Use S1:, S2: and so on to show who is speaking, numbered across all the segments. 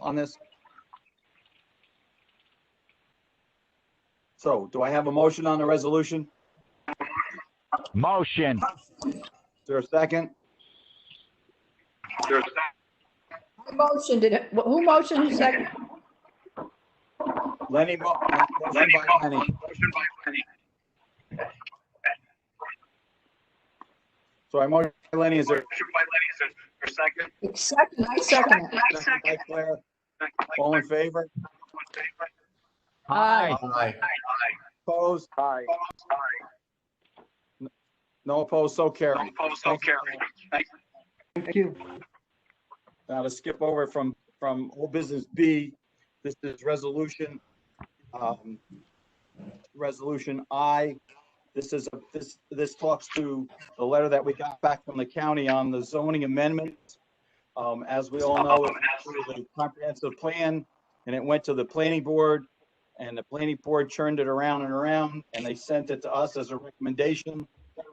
S1: on this? So do I have a motion on the resolution?
S2: Motion.
S1: Is there a second?
S3: Who motioned it? Who motioned second?
S1: Lenny, mo- uh, motion by Lenny. So I motion by Lenny, is there
S3: Second, I second it.
S1: a second by Claire? All in favor?
S3: Aye.
S4: Aye.
S1: Opposed? Aye. No opposed, so carried.
S5: Thank you.
S1: Now to skip over from, from old business B, this is resolution, um, resolution I. This is, a- this, this talks to the letter that we got back from the county on the zoning amendment. Um, as we all know, it was a comprehensive plan and it went to the planning board and the planning board churned it around and around and they sent it to us as a recommendation.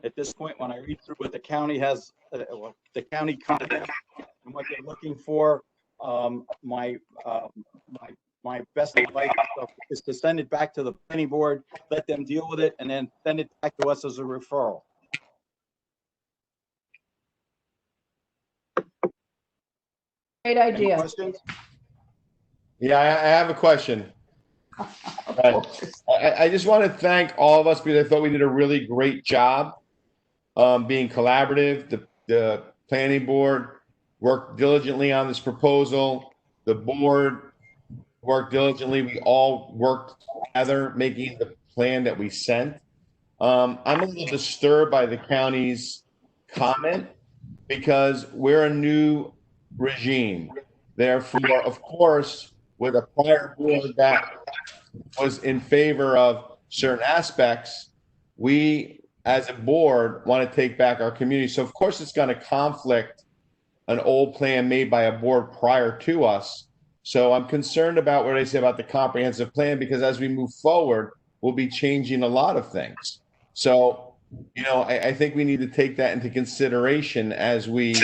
S1: At this point, when I read through what the county has, uh, what the county content and what they're looking for. Um, my, um, my, my best advice is to send it back to the planning board, let them deal with it, and then send it back to us as a referral.
S3: Great
S1: Any
S3: idea.
S1: questions?
S4: Yeah, I, I have a question. I, I- I just want to thank all of us because I thought we did a really great job um, being collaborative. The, the planning board worked diligently on this proposal. The board worked diligently. We all worked together, making the plan that we sent. Um, I'm a little disturbed by the county's comment because we're a new regime. Therefore, of course, with a prior board that was in favor of certain aspects, we as a board want to take back our community. So of course, it's going to conflict an old plan made by a board prior to us. So I'm concerned about what I say about the comprehensive plan because as we move forward, we'll be changing a lot of things. So, you know, I, I think we need to take that into consideration as we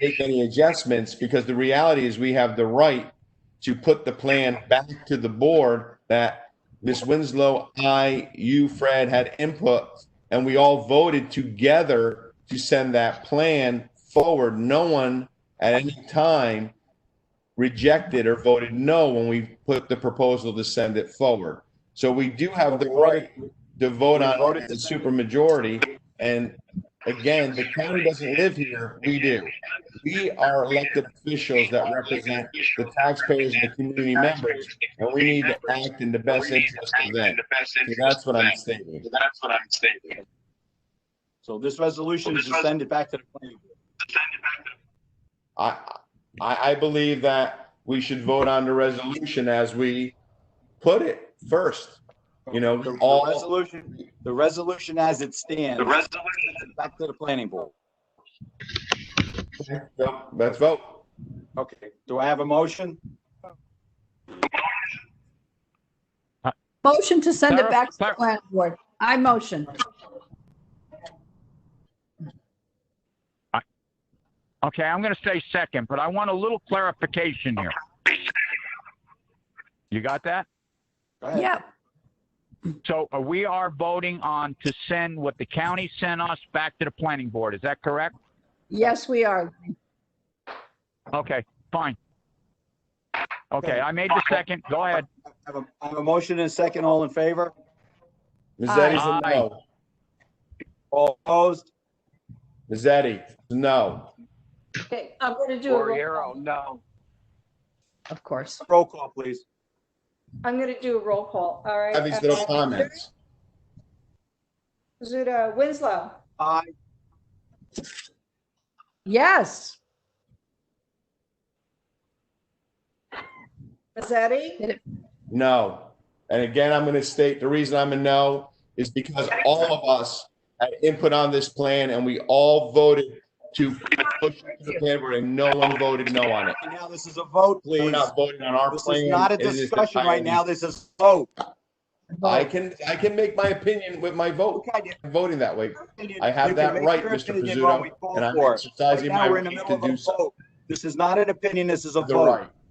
S4: make any adjustments because the reality is we have the right to put the plan back to the board that Ms. Winslow, I, you, Fred had input, and we all voted together to send that plan forward. No one at any time rejected or voted no when we put the proposal to send it forward. So we do have the right to vote on it as a supermajority. And again, the county doesn't live here, we do. We are elected officials that represent the taxpayers and the community members, and we need to act in the best interest of them. So that's what I'm stating.
S6: That's what I'm stating.
S1: So this resolution is to send it back to the planning. board.
S4: I, I, I believe that we should vote on the resolution as we put it first. You know,
S1: The- the
S4: all-
S1: Resolution, the resolution as it stands,
S6: The resolution
S1: back to the planning board.
S4: So Let's vote.
S1: Okay, do I have a motion?
S3: Motion to send it
S2: Sarah-
S3: back to the
S2: Sarah-
S3: planning board. I motion.
S2: Okay, I'm going to say second, but I want a little clarification here. You got that?
S1: Go ahead.
S3: Yep.
S2: So uh, we are voting on to send what the county sent us back to the planning board. Is that correct?
S3: Yes, we are.
S2: Okay, fine. Okay,
S1: Okay.
S2: I made the second. Go ahead.
S1: I have a- I have a motion and a second, all in favor?
S4: Mazzetti's a no.
S1: All opposed?
S4: Mazzetti, no.
S3: Okay, I'm going to do a roll,
S5: no.
S3: of course.
S1: Roll call, please.
S3: I'm going to do a roll call. All right. Uh,
S4: Have these little comments.
S3: Zuda Winslow.
S1: Aye.
S3: Yes.
S7: Mazzetti?
S4: No. And again, I'm going to state the reason I'm a no is because all of us had input on this plan and we all voted to push it to the plan board and no one voted no on it.
S1: And now this is a vote,
S4: We're
S1: please.
S4: not voting on our
S1: This
S4: plan.
S1: is not a
S4: It is the
S1: discussion right
S4: county's-
S1: now, this is oh, a vote.
S4: I can, I can make my opinion with my vote,
S1: Okay,
S4: I'm voting that way.
S1: You-
S4: I have
S1: you can
S4: that
S1: make
S4: right,
S1: your
S4: Mr.
S1: opinion while
S4: Pizzuto,
S1: we vote
S4: and I'm
S1: for it.
S4: exercising
S1: Right now,
S4: my
S1: we're in
S4: right
S1: the
S4: to
S1: middle of
S4: do
S1: a
S4: so.
S1: vote. This is not an opinion, this is a
S4: The
S1: vote.
S4: right.